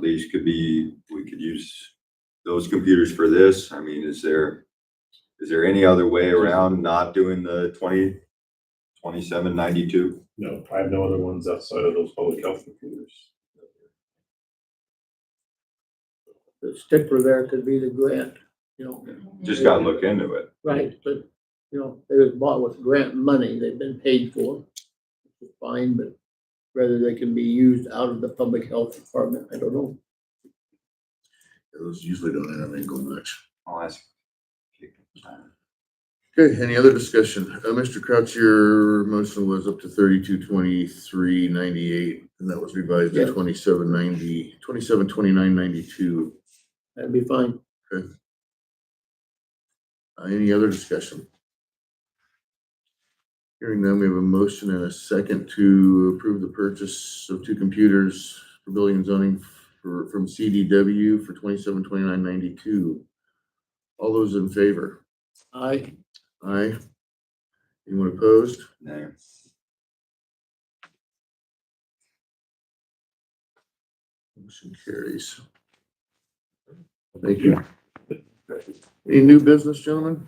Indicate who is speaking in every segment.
Speaker 1: these could be, we could use those computers for this. I mean, is there, is there any other way around not doing the twenty, twenty-seven ninety-two?
Speaker 2: No, I have no other ones outside of those public health computers.
Speaker 3: The stickler there could be the grant, you know,
Speaker 1: Just gotta look into it.
Speaker 3: right, but, you know, they was bought with grant money, they've been paid for. which is Fine, but whether they can be used out of the public health department, I don't know.
Speaker 4: Those usually don't end up in gold much.
Speaker 1: I'll ask.
Speaker 4: Okay, any other discussion? Uh, Mr. Crouch, your motion was up to thirty-two twenty-three ninety-eight, and that was revised
Speaker 3: Yeah.
Speaker 4: to twenty-seven ninety, twenty-seven twenty-nine ninety-two.
Speaker 3: That'd be fine.
Speaker 4: Uh, any other discussion? Hearing none, we have a motion and a second to approve the purchase of two computers for building and zoning for, from CDW for twenty-seven twenty-nine ninety-two. All those in favor?
Speaker 3: I,
Speaker 4: Aye. Anyone opposed?
Speaker 1: No.
Speaker 4: Motion carries. Thank you. Any new business, gentlemen?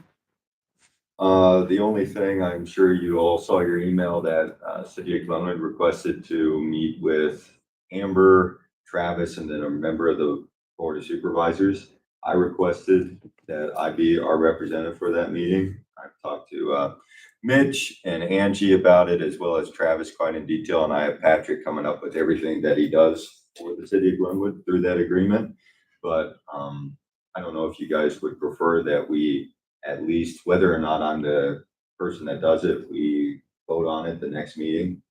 Speaker 1: Uh, the only thing, I'm sure you all saw your email that, uh, City of Glenwood requested to meet with Amber, Travis, and then a member of the Board of Supervisors. I requested that I be our representative for that meeting. I've talked to, uh, Mitch and Angie about it, as well as Travis quite in detail, and I have Patrick coming up with everything that he does for the City of Glenwood through that agreement. But, um, I don't know if you guys would prefer that we at least whether or not I'm the person that does it, we vote on it the next meeting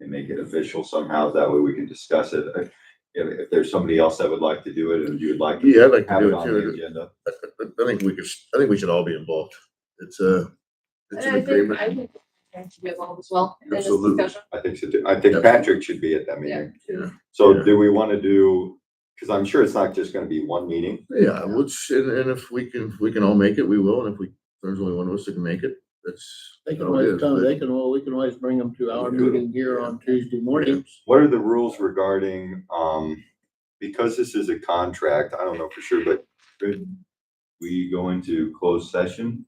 Speaker 1: and make it official somehow. That way we can discuss it. If, if there's somebody else that would like to do it and you would like to
Speaker 4: Yeah, I'd like to
Speaker 1: have it
Speaker 4: do it
Speaker 1: on the
Speaker 4: too.
Speaker 1: agenda.
Speaker 4: I I- I think we could, I think we should all be involved. It's a, it's
Speaker 5: And
Speaker 4: an
Speaker 5: I think,
Speaker 4: agreement.
Speaker 5: I think that should be involved as well. in this
Speaker 1: Absolutely.
Speaker 5: discussion.
Speaker 1: I think so. too. I think
Speaker 4: Yeah.
Speaker 1: Patrick should be at that meeting.
Speaker 4: Yeah.
Speaker 1: So
Speaker 4: Yeah.
Speaker 1: do we want to do, because I'm sure it's not just going to be one meeting.
Speaker 4: Yeah, which, and, and if we can, if we can all make it, we will. And if we, there's only one of us that can make it, that's.
Speaker 3: they can
Speaker 4: that'll be
Speaker 3: always
Speaker 4: it.
Speaker 3: come, they can, al- we can always bring them to our meeting here on Tuesday mornings.
Speaker 1: What are the rules regarding, um, because this is a contract, I don't know for sure, but could we go into closed session?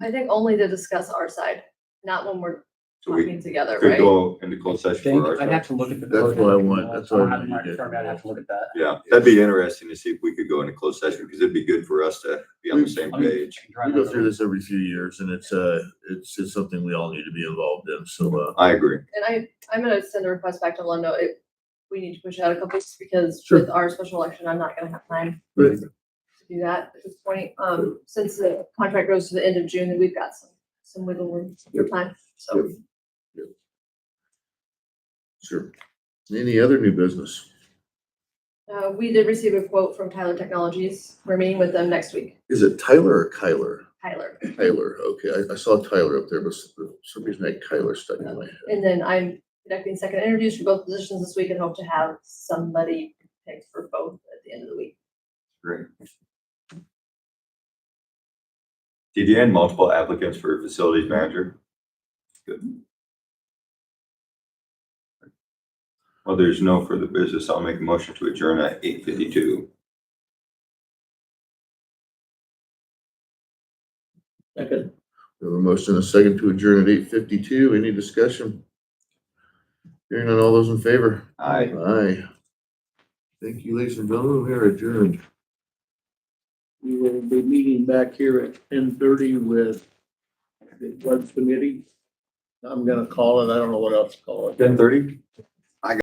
Speaker 5: I think only to discuss our side, not when we're
Speaker 1: So we
Speaker 5: talking together,
Speaker 1: could
Speaker 5: right?
Speaker 1: go into closed session
Speaker 6: think,
Speaker 1: for
Speaker 6: I'd
Speaker 1: our.
Speaker 6: have to look at the.
Speaker 4: That's
Speaker 6: code.
Speaker 4: what I want, that's what I
Speaker 6: I'll have
Speaker 4: want
Speaker 6: my
Speaker 4: you to-
Speaker 6: firm, I'd have to look at that.
Speaker 1: Yeah, that'd be interesting to see if we could go into closed session because it'd be good for us to be on the
Speaker 4: We-
Speaker 1: same
Speaker 6: I mean,
Speaker 1: page.
Speaker 6: I
Speaker 4: We
Speaker 6: can
Speaker 4: go
Speaker 6: drive
Speaker 4: through
Speaker 6: that.
Speaker 4: this every few years and it's, uh, it's, it's something we all need to be involved in. So, uh,
Speaker 1: I agree.
Speaker 5: And I, I'm gonna send a request back to Lundo, it, we need to push it out a couple weeks because
Speaker 4: Sure.
Speaker 5: with our special election, I'm not gonna have time
Speaker 4: Right.
Speaker 5: to do that at this point. Um, since the contract goes to the end of June, then we've got some, some wiggle room for
Speaker 4: Yep.
Speaker 5: time, so.
Speaker 4: sure. Any other new business?
Speaker 5: Uh, we did receive a quote from Tyler Technologies, we're meeting with them next week,
Speaker 4: Is it Tyler or Kyler?
Speaker 5: Tyler.
Speaker 4: Tyler, okay. I, I saw Tyler up there, but for some reason I had Kyler stuck in my head.
Speaker 5: And then I'm conducting second interviews for both positions this week and hope to have somebody picked for both at the end of the week.
Speaker 1: Great. DDN, multiple applicants for facilities manager. Good. Well, there's no further business. I'll make a motion to adjourn at eight fifty-two.
Speaker 3: Second,
Speaker 4: We have a motion and a second to adjourn at eight fifty-two. Any discussion? Hearing none, all those in favor?
Speaker 1: Aye.
Speaker 4: Aye. Thank you, ladies and gentlemen. We are adjourned.
Speaker 3: we will be meeting back here at ten thirty with the Floods Committee. I'm gonna call it, I don't know what else to call it.
Speaker 1: Ten thirty?